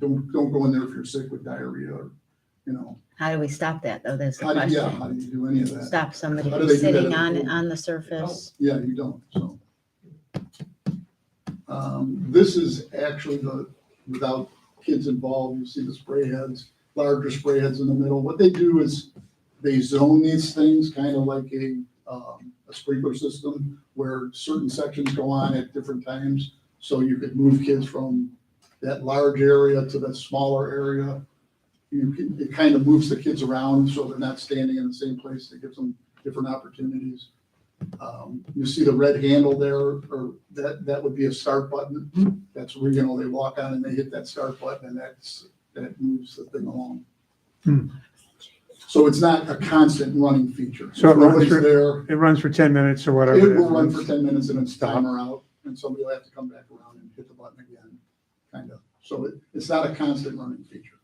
don't, don't go in there if you're sick with diarrhea, or, you know, How do we stop that, though? That's the how do, yeah, how question. do you do any of that? Stop somebody How from do they do that sitting in the on, pool? on the surface. Yeah, you don't, so. Um, this is actually the, without kids involved, you see the spray heads, larger spray heads in the middle. What they do is they zone these things, kind of like a, um, a sprinkler system where certain sections go on at different times. So you could move kids from that large area to that smaller area. You can, it kind of moves the kids around so they're not standing in the same place. It gives them different opportunities. Um, You see the red handle there, or that, that would be a start button. That's where, you know, they walk on and they hit that start button and that's, that moves the thing along. Hmm. So it's not a constant running feature. So it runs Nobody's for- there. It runs for ten minutes or whatever. It will is. run for ten minutes and it's Stop. timer out and somebody will have to come back around and hit the button again, kind of. So it, it's not a constant running feature.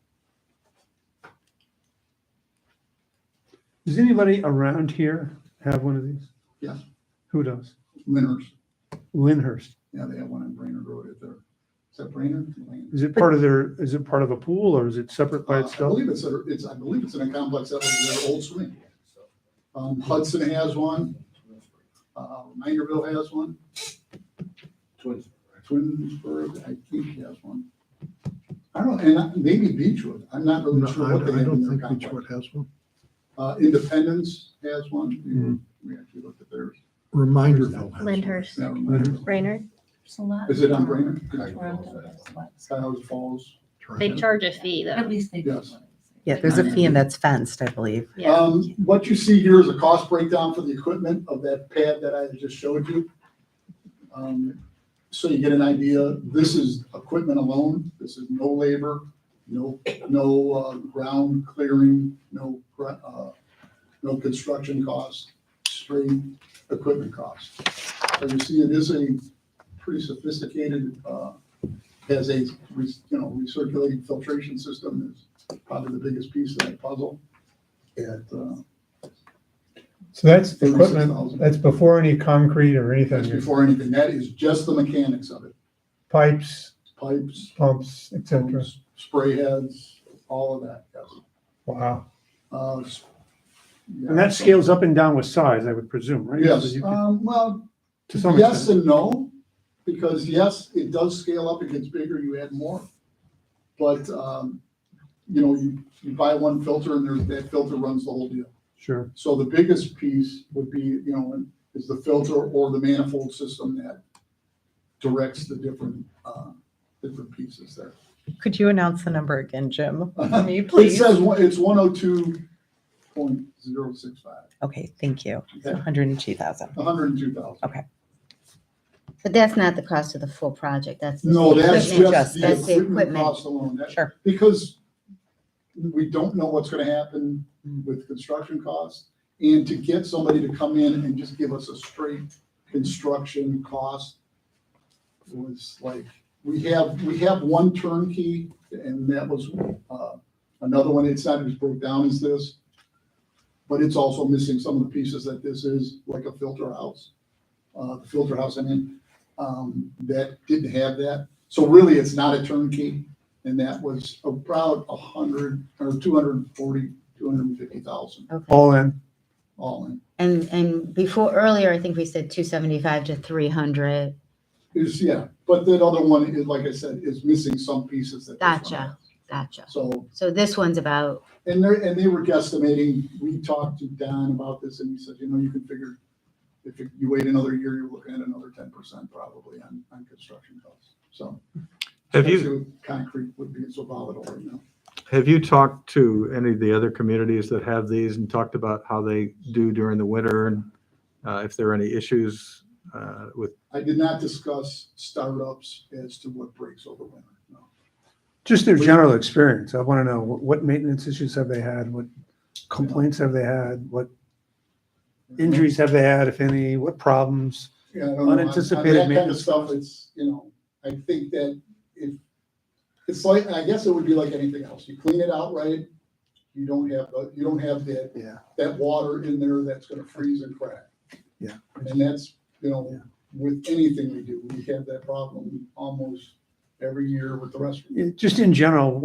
Does anybody around here have one of these? Yes. Who does? Winners, Lyndhurst. yeah, they have one in Brainerd Road at their, is that Brainerd? Lane? Is it part of their, is it part of a pool or is it separate by Uh, I itself? believe it's, a- it's, I believe it's in a complex that was their old swing. Um, Hudson has one, uh, Mangerville has one, Twins. Twinsburg, I think has one. I don't, and I- maybe Beechwood, I'm not No, really sure I what they I have in don't their think complex. Beechwood has one. Uh, Independence has one, We were- Hmm. we actually looked at theirs. Reminderville has one. Lyndhurst, Never mind. Brainerd. It's a lot. Is it on Brainerd? At Cuyahoga Falls? They charge a fee though. least they. do. Yes. Yeah, there's a fee and that's fenced, I believe. Yeah. Um, what you see here is a cost breakdown for the equipment of that pad that I just showed you. Um, So you get an idea, this is equipment alone, this is no labor, no, no, uh, ground clearing, no, gra- uh, no construction cost, straight equipment cost. So you see, it is a pretty sophisticated, uh, has a, re- you know, recirculating filtration system is probably the biggest piece of that puzzle. At, uh, So that's $36,000. that's before any concrete or That's before anything, that is just the mechanics of it, pipes, pipes, pumps, et pumps, spray heads, all of that, yes. Wow. Uh, s- yeah. And that scales up and down with size, I would presume, right? So Yes, you could- um, well, To some yes extent. and no, because yes, it does scale up, it gets bigger, you add more. But, um, you know, you, you buy one filter and there's, that filter runs the whole deal. Sure. So the biggest piece would be, you know, is the filter or the manifold system that directs the different, uh, different pieces there. Could you announce the number again, Jim? For me, It please? says, one- it's one oh two point zero six five, Okay, thank you. It's Okay. 102,000. hundred and two thousand. But that's not the cost of the full project. That's. just No, the that's equipment. just the That's the equipment equipment. cost alone. That- Sure. Because we don't know what's gonna happen with construction costs. And to get somebody to come in and just give us a straight construction cost was like, we have, we have one turnkey and that was, uh, another one, it's not as broke down as this. But it's also missing some of the pieces that this is, like a filter house, uh, the filter house, I mean, um, that didn't have that. So really, it's not a turnkey. And that was about a hundred or two hundred and forty, two hundred and fifty thousand Okay. All in. all in. And, and before, earlier, I think we said two seventy-five to three hundred. Is, yeah, but that other one is, like I said, is missing some pieces that. this one Gotcha. has. Gotcha. So, So this one's about, and they're, and they were guesstimating, we talked to Don about this and he said, you know, you can figure if you you wait another year, you're looking at another ten percent probably on, on construction costs. So. Have you, especially with Concrete would be so volatile right now. have you talked to any of the other communities that have these and talked about how they do during the winter and uh, if there are any issues uh, with, I did not discuss startups as to what breaks over winter, no. Just their general experience. I want to know what, what maintenance issues have they had? What complaints have they had? What injuries have they had, if any? What problems? Yeah, I don't know. On- on Unanticipated That kind of maintenance stuff, it's, you know, I think that if, it's like, I guess it would be like anything else. You clean it out right, you don't have, the- you don't have that, Yeah. that water in there that's gonna freeze and crack. Yeah. And that's, you know, Yeah. with anything we do, we have that problem almost every year with the rest of It- Just in general,